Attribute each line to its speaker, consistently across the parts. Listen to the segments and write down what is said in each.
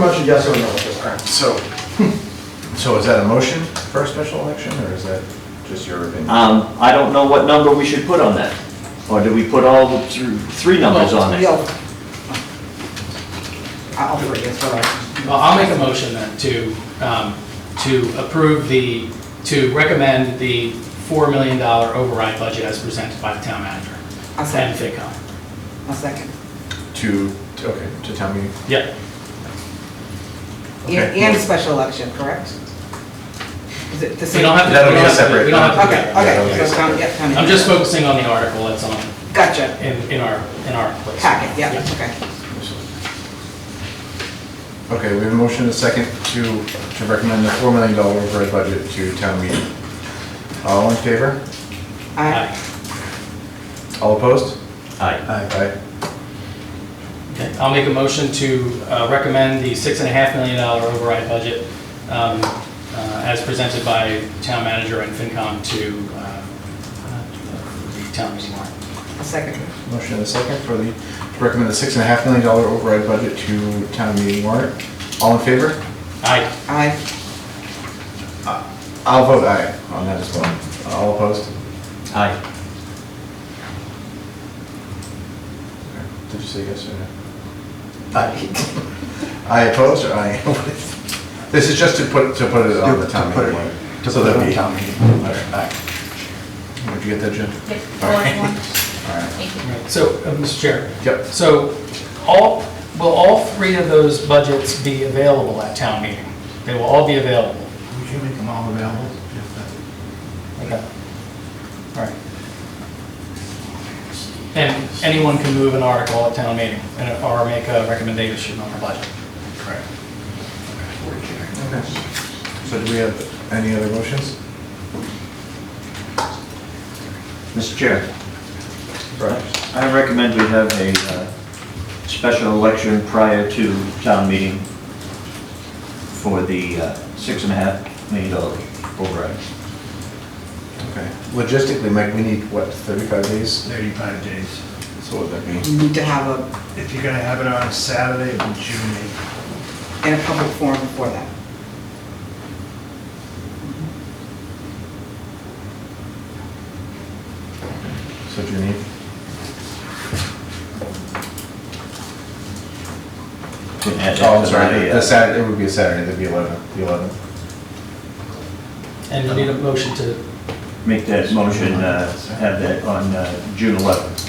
Speaker 1: Pretty much a yes or no at this point.
Speaker 2: So, so is that a motion for a special election, or is that just your
Speaker 3: Uh,
Speaker 2: opinion?
Speaker 4: Um, I don't know what number we should put on that. Or do we put all the thr- three numbers on it?
Speaker 5: Well, yeah. I'll forget, it's all right.
Speaker 3: Well, I'll make a motion then to, um, to approve the, to recommend the $4 million override budget as presented by the town manager
Speaker 5: I'll
Speaker 3: and
Speaker 5: second,
Speaker 3: FinCom.
Speaker 5: I'll second.
Speaker 2: To, to- okay, to town meeting?
Speaker 3: Yeah,
Speaker 5: And,
Speaker 2: Okay.
Speaker 5: and a special election, correct? Is it the
Speaker 3: we
Speaker 5: same?
Speaker 3: don't have to.
Speaker 2: That'll be
Speaker 3: Uh, we don't
Speaker 2: a separate-
Speaker 3: We don't have to. do
Speaker 5: Okay,
Speaker 3: that.
Speaker 2: Yeah,
Speaker 5: okay,
Speaker 2: okay.
Speaker 5: so, town- yeah, town
Speaker 3: I'm just
Speaker 5: meeting.
Speaker 3: focusing on the article that's on,
Speaker 5: Gotcha,
Speaker 3: in, in our, in our place.
Speaker 5: packet, yeah, okay.
Speaker 2: Okay, we have a motion and a second to, to recommend the four million dollar override budget to town meeting. All in favor?
Speaker 5: I,
Speaker 3: Aye.
Speaker 2: All opposed?
Speaker 4: Aye.
Speaker 2: Aye.
Speaker 3: Okay, I'll make a motion to uh, recommend the $6.5 million override budget um, uh, as presented by town manager and FinCom to uh, uh, the town meeting warrant.
Speaker 5: I'll second.
Speaker 2: Motion and a second for the, to recommend the six and a half million dollar override budget to town meeting warrant. All in favor?
Speaker 3: Aye.
Speaker 5: I,
Speaker 2: I'll vote aye on that as well. All opposed?
Speaker 4: Aye.
Speaker 2: Did you say yes or no? Aye. I oppose or aye? This is just to put, to put it on the town meeting. warrant. So that'd be. Aye. Would you get that, Jim?
Speaker 6: Yes,
Speaker 2: All right.
Speaker 6: one,
Speaker 2: All right.
Speaker 6: thank you.
Speaker 3: Right, So, uh, Mr. Chair,
Speaker 2: Yep.
Speaker 3: so all, will all three of those budgets be available at town meeting? They will all be available?
Speaker 7: Would you make them all available? if that-
Speaker 3: Okay. All right. And anyone can move an article at town meeting and or make a recommendation on the budget? Correct.
Speaker 2: Okay. So do we have any other motions?
Speaker 4: Mr. Chair, I recommend we have a uh, special election prior to town meeting for the uh, six and a half million dollar override.
Speaker 2: Okay. Logistically, Mike, we need, what, 35 days?
Speaker 7: 35 days.
Speaker 2: So what would that mean?
Speaker 5: you need to have a,
Speaker 7: If you're gonna have it on a Saturday, it'd be June 8th.
Speaker 5: and a public forum before that.
Speaker 2: So do you need?
Speaker 4: Can add that
Speaker 2: Oh, I'm
Speaker 4: to
Speaker 2: sorry,
Speaker 4: my, uh,
Speaker 2: the Saturday, it would be a Saturday, that'd be 11, the 11.
Speaker 3: And you need a motion to,
Speaker 4: Make that motion, uh, have that on uh, June 11th.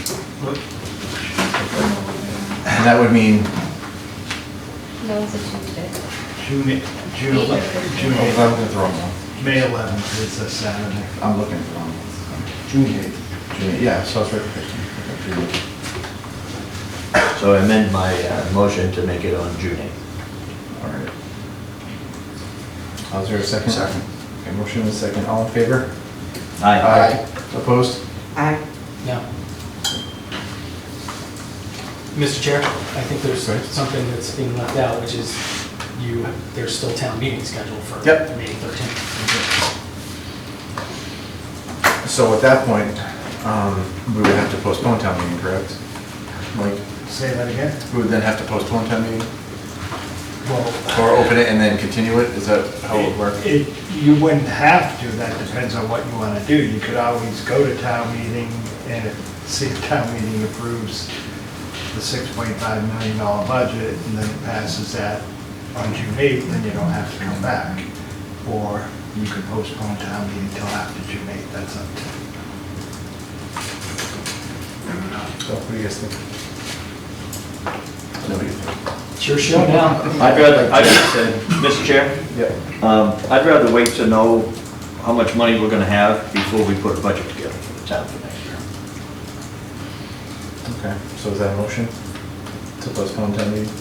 Speaker 2: And that would mean, oh,
Speaker 6: No, it's a Tuesday.
Speaker 7: June, eight- June 11th, June
Speaker 2: oh,
Speaker 7: 8th,
Speaker 2: I'm looking at the wrong one.
Speaker 7: May 11th is a Saturday.
Speaker 2: I'm looking at the wrong one.
Speaker 7: June 8th.
Speaker 2: June eighth, Yeah, so it's right for 15. Okay, June eighth.
Speaker 4: So I amend my uh, motion to make it on June 8th.
Speaker 2: All right. Uh, Is there a second? Second. Okay, motion and a second, all in favor? Opposed?
Speaker 5: I,
Speaker 3: no? Mr. Chair, I think there's
Speaker 2: Sorry?
Speaker 3: something that's being left out, which is you, there's still town meeting scheduled for
Speaker 2: Yep.
Speaker 3: May 13th.
Speaker 2: So at that point, um, we would have to postpone town meeting, correct? Mike,
Speaker 7: Say that again?
Speaker 2: we would then have to postpone town meeting,
Speaker 7: Well,
Speaker 2: or open it and then continue it, is that how it would work?
Speaker 7: it, you wouldn't have to, that depends on what you wanna do. You could always go to town meeting and if- see if town meeting approves the 6.5 million dollar budget and then it passes that on June 8th, then you don't have to come back. Or you could postpone town meeting till after June 8th, that's up to you.
Speaker 2: So what do you guys think? Nobody think?
Speaker 3: It's your show now.
Speaker 4: I'd rather, I'd rather, Mr. Chair?
Speaker 2: Yeah.
Speaker 4: Um, I'd rather wait to know how much money we're gonna have before we put a budget together for the town for next year.
Speaker 2: Okay, so is that a motion to postpone town meeting?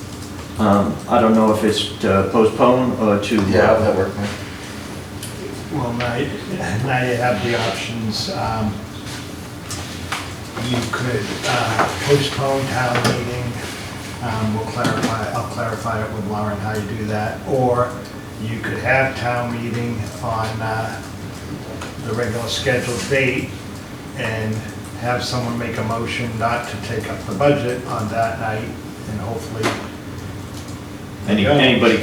Speaker 4: Um, I don't know if it's to postpone or to.
Speaker 2: How would that work, Mike?
Speaker 7: Well, now, you- now you have the options. um, You could uh, postpone town meeting, um, we'll clarify, I'll clarify it with Lauren how you do that, or you could have town meeting on uh, the regular scheduled date and have someone make a motion not to take up the budget on that night, and hopefully
Speaker 4: Any- Anybody